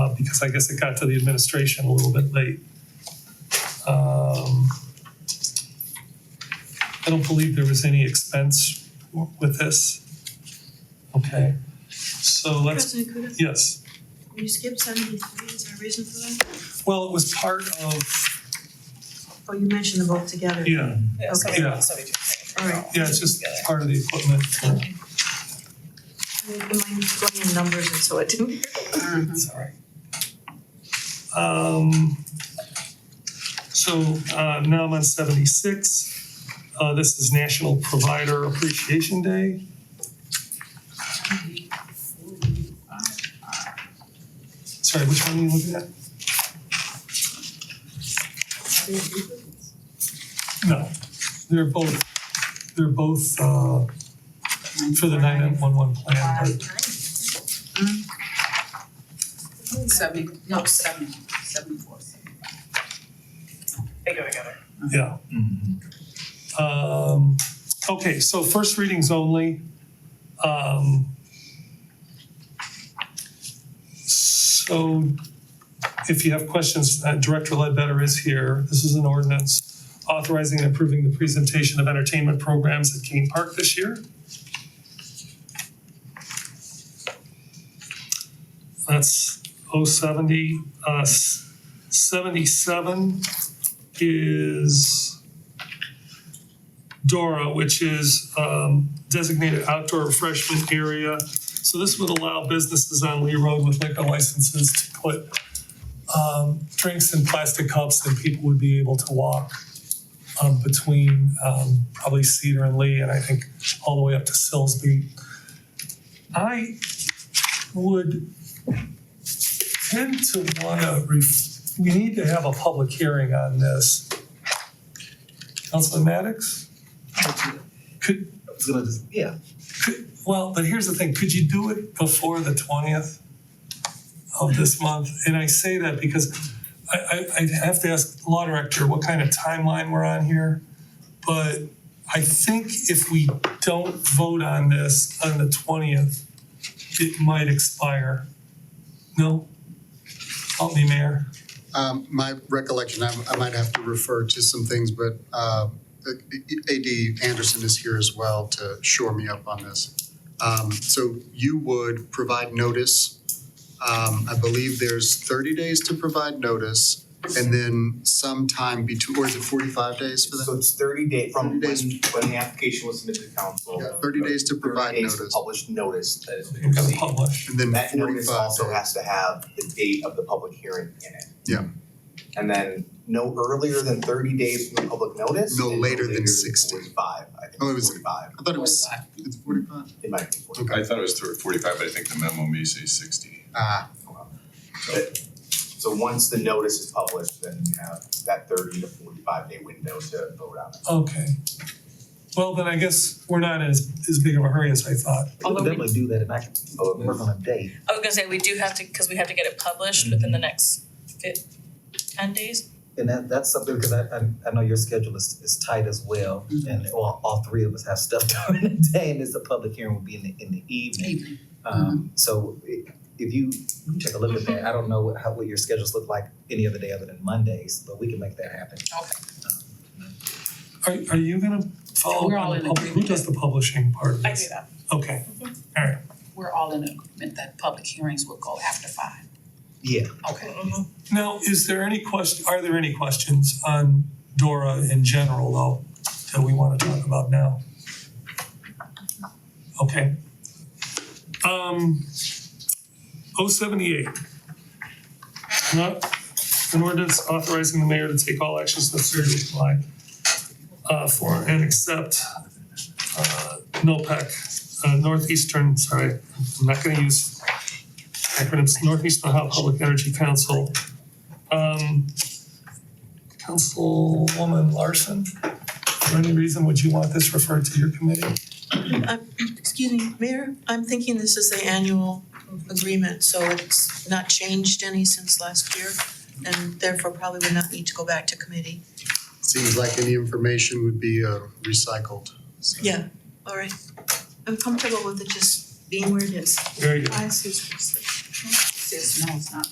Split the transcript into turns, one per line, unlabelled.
uh, because I guess it got to the administration a little bit late. Um, I don't believe there was any expense w- with this. Okay, so let's,
President Kudo,
yes.
you skipped seventy-three, is there a reason for that?
Well, it was part of,
Oh, you mentioned them both together.
yeah,
Yeah,
Okay.
somebody,
Yeah.
somebody do it.
All right.
yeah, it's just part of the equipment.
Okay. I mean, you mind going in numbers and so it didn't.
It's all right.
Mm-hmm. Um, so, uh, now I'm on seventy-six. Uh, this is National Provider Appreciation Day. Sorry, which one are you looking at? No, they're both, they're both, uh, for the nine-one-one plan, but
Seventy, no, seventy, seventy-four.
They go together.
Yeah. Um, okay, so first readings only. Um, so if you have questions, uh, Director Ledbetter is here. This is an ordinance authorizing and approving the presentation of entertainment programs at Kane Park this year. That's 070, uh, s- 77 is Dora, which is um, designated outdoor refreshment area. So this would allow businesses on Lee Road with liquor licenses to put um, drinks in plastic cups and people would be able to walk um, between um, probably Cedar and Lee and I think all the way up to Silsby. I would tend to want to ref, we need to have a public hearing on this. Councilman Maddox, could,
I was gonna just, yeah.
could, well, but here's the thing, could you do it before the twentieth of this month? And I say that because I, I, I have to ask law director what kind of timeline we're on here. But I think if we don't vote on this on the twentieth, it might expire. No? Help me, Mayor.
Um, my recollection, I, I might have to refer to some things, but, uh, AD Anderson is here as well to shore me up on this. Um, so you would provide notice. Um, I believe there's thirty days to provide notice and then sometime between, or is it forty-five days for
So
that?
it's thirty day
30
from when,
days.
when the application was submitted to the council.
Yeah, thirty days to
30
provide
days to
notice
publish notice that it's been
We've got to
received.
publish.
and then
That notice
forty-five
also
days.
has to have the date of the public hearing in it.
Yeah.
And then no earlier than thirty days from the public notice.
No
and
later than 60.
Forty-five, I think
Oh, it
it's
was-
forty-five,
I thought it was, it's forty-five?
it might be forty-five.
Okay.
I thought it was thir- forty-five, but I think the memo may say sixty.
Ah,
So once the notice is published, then you have that thirty to forty-five day window to vote on it.
Okay. Well, then I guess we're not in as, as big of a hurry as I thought.
Although we,
do that and I can
Although
work on a day.
I was gonna say, we do have to, cause we have to get it published within the next fif- ten days.
Mm-hmm. And that, that's something, because I, I, I know your schedule is, is tight as well.
Mm-hmm.
And all, all three of us have stuff during the day and it's a public hearing will be in the, in the evening.
evening,
Um, so i- if you take a look at that, I don't know what- how, what your schedules look like any other day other than Mondays, but we can make that happen. Um,
okay.
Are, are you gonna follow
We're
up
all
on the
in
public, who
agreement.
does the publishing part of
I do
this?
that.
Okay,
We're all in agreement that public hearings will go after five.
Yeah.
Okay.
now, is there any question, are there any questions on Dora in general though, that we wanna talk about now? Okay. Um, oh seventy-eight. Not, an ordinance authorizing the mayor to take all actions necessary to apply uh, for and accept uh, NOPEC, uh, Northeastern, sorry, I'm not gonna use acronyms, Northeast Ohio Public Energy Council. Um, Councilwoman Larson, for any reason, would you want this referred to your committee?
Excuse me, Mayor, I'm thinking this is the annual agreement, so it's not changed any since last year and therefore probably would not need to go back to committee.
seems like any information would be, uh, recycled. so.
Yeah, all right. I'm comfortable with it just being where it is.
Very good.
I see.
Says no, it's not